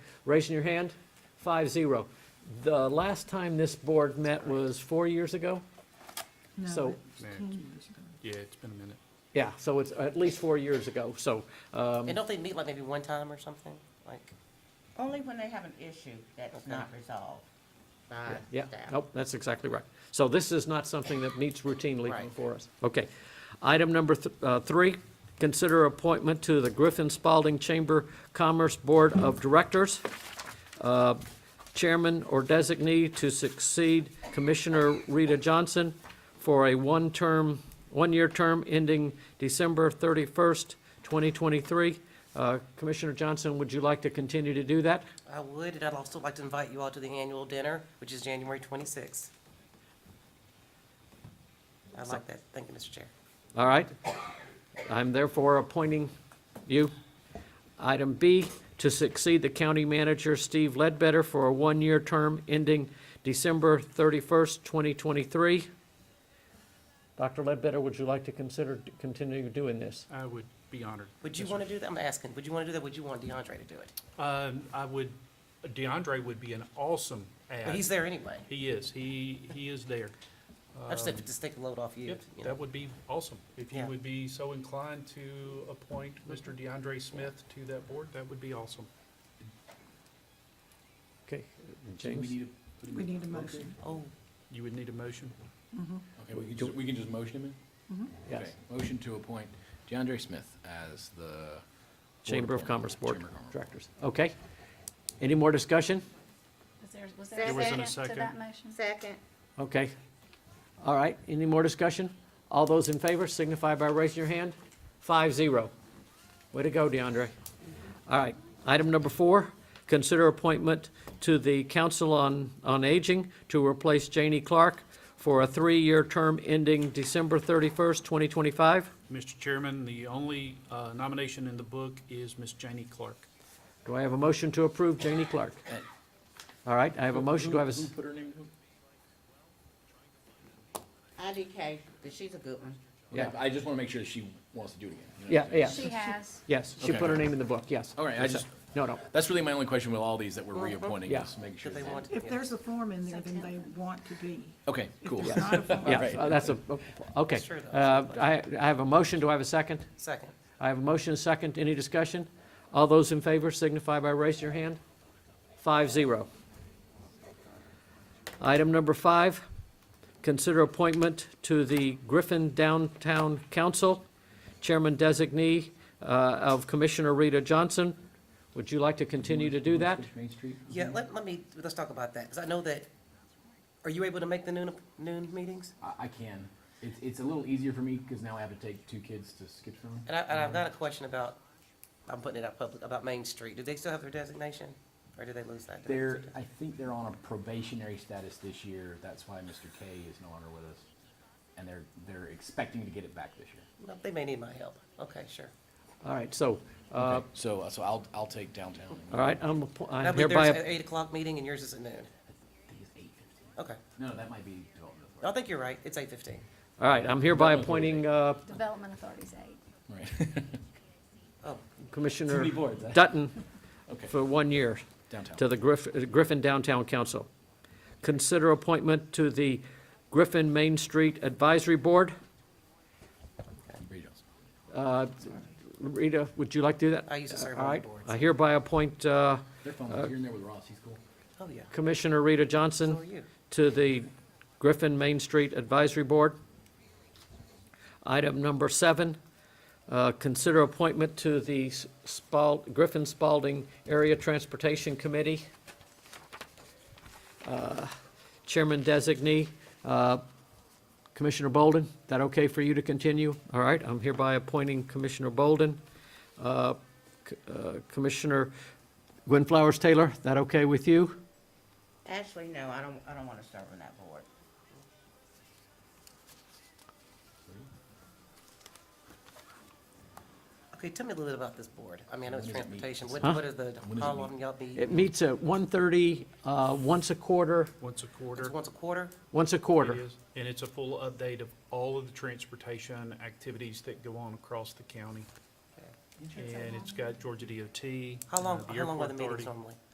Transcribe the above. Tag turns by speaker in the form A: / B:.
A: Raising your hand? Five zero. The last time this board met was four years ago? So-
B: Yeah, it's been a minute.
A: Yeah, so it's at least four years ago, so, um,
C: And don't they meet like maybe one time or something? Like,
D: Only when they have an issue that's
C: Okay.
D: not resolved.
C: by
A: yeah,
C: staff?
A: nope, that's exactly right. So this is not something that meets routinely
C: Right.
A: for us. Okay. Item number th- uh, three, consider appointment to the Griffin Spalding Chamber Commerce Board of Directors. Uh, Chairman or designee to succeed Commissioner Rita Johnson for a one-term, one-year term ending December 31st, 2023. Uh, Commissioner Johnson, would you like to continue to do that?
C: I would, and I'd also like to invite you all to the annual dinner, which is January twenty-sixth. I like that. Thank you, Mr. Chair.
A: All right. I'm therefore appointing you. Item B, to succeed the county manager Steve Ledbetter for a one-year term ending December 31st, 2023. Dr. Ledbetter, would you like to consider d- continue doing this?
B: I would be honored.
C: Would you
B: Yes, sir.
C: want to do that? I'm asking, would you want to do that? Would you want DeAndre to do it?
B: Um, I would, DeAndre would be an awesome
C: But
B: ad.
C: he's there anyway.
B: He is, he, he is there.
C: I just have to just take the load off you,
B: Yep,
C: you know.
B: that would be awesome. If you
C: Yeah.
B: would be so inclined to appoint Mr. DeAndre Smith to that board, that would be awesome.
A: Okay, James?
E: We need a motion.
C: Oh,
B: You would need a motion?
F: Okay, we can just, we can just motion him in?
A: Yes.
F: Okay, Motion to appoint DeAndre Smith as the. board
A: Chamber of
F: appointment.
A: Commerce Board
F: Chamber of Commerce.
A: Directors. Okay. Any more discussion?
G: Was there, was there
B: There wasn't
G: a
B: a
G: second to that motion?
H: Second.
A: Okay. All right, any more discussion? All those in favor signify by raising your hand. Five zero. Way to go, DeAndre. All right, item number four, consider appointment to the Council on, on Aging to replace Janie Clark for a three-year term ending December thirty-first, twenty twenty-five.
B: Mr. Chairman, the only uh, nomination in the book is Miss Janie Clark.
A: Do I have a motion to approve Janie Clark?
F: Uh,
A: All right, I have a motion, do I have a, s-
F: put her name?
D: IDK, but she's a good one.
A: Yeah.
F: I just want to make sure that she wants to do it again. you know
A: yeah,
F: what I'm
A: yeah,
G: She has.
A: yes, she put her
F: Okay.
A: name in the book, yes.
F: All right, I just-
A: No, no,
F: saying? That's really my only question with all these that we're reappointing,
A: Yeah.
F: is make sure.
C: did they
F: that-
C: want?
E: If
C: yeah.
E: there's a form in there, then they want to be.
F: Okay, cool.
E: If there's not a form,
A: yeah,
F: right.
A: uh, that's a, okay.
C: Sure, though.
A: Uh, I, I have a motion, do I have a second?
C: Second.
A: I have a motion, and a second, any discussion? All those in favor signify by raising your hand. Five zero. Item number five, consider appointment to the Griffin Downtown Council, Chairman Designee uh, of Commissioner Rita Johnson. Would you like to continue to do that?
F: Switch Main Street? Mm-hmm.
C: Yeah, let, let me, let's talk about that, because I know that, are you able to make the noon, noon meetings?
F: I, I can. It's, it's a little easier for me because now I have to take two kids to skip from.
C: And I, and I've got a question about, I'm putting it out public, about Main Street. Do they still have their designation, or do they lose that?
F: They're, I think they're on a probationary status this year. That's why Mr. K is no longer with us. And they're, they're expecting to get it back this year.
C: Well, They may need my help. Okay, sure.
A: All right, so, uh,
F: Okay, So, so I'll, I'll take downtown.
A: all right, I'm appo-
C: That'll
A: I'm
C: be there's an
A: hereby,
C: eight o'clock meeting and yours is at noon.
F: I think it's 8:15.
C: Okay.
F: No, that might be development.
C: I
F: authority.
C: think you're right. It's eight fifteen.
A: all right, I'm hereby
F: That was really
A: appointing uh,
G: Development Authority's eight.
F: Right.
C: Oh,
F: Too
A: Commissioner
F: many boards, eh?
A: Dutton
F: Okay,
A: for one year. to
F: downtown.
A: the Griff- uh, Griffin Downtown Council. Consider appointment to the Griffin Main Street Advisory Board.
F: Reed Johnson.
A: Uh, Rita, would you like to do that?
C: I used to serve
A: All
C: on the
A: right,
C: board.
A: I hereby appoint uh,
F: They're fun. You're in there with Ross. He's cool.
C: Oh, yeah.
A: Commissioner Rita Johnson
C: So are you.
A: to the Griffin Main Street Advisory Board. Item number seven, uh, consider appointment to the S- Spal- Griffin Spalding Area Transportation Committee. Uh, Chairman designee, uh, Commissioner Bolden, that okay for you to continue? All right, I'm hereby appointing Commissioner Bolden. Uh, C- uh, Commissioner Gwen Flowers Taylor, that okay with you?
D: Actually, no, I don't, I don't want to serve on that board.
C: Okay, tell me a little bit about this board. I mean, I know it's
F: When does it meet?
C: transportation. What,
A: Huh?
C: what is the,
F: does it
C: how
F: meet?
C: often y'all be?
A: It meets at 1:30, uh, once a quarter,
B: Once a quarter.
C: It's once a quarter?
A: once a
B: It
A: quarter.
B: is, and it's a full update of all of the transportation activities that go on across the county. And it's got Georgia DOT.
C: How
B: uh,
C: long,
B: the
C: how long
B: uh, Airport
C: are
F: Uh,
C: the meetings
B: Authority.
C: normally?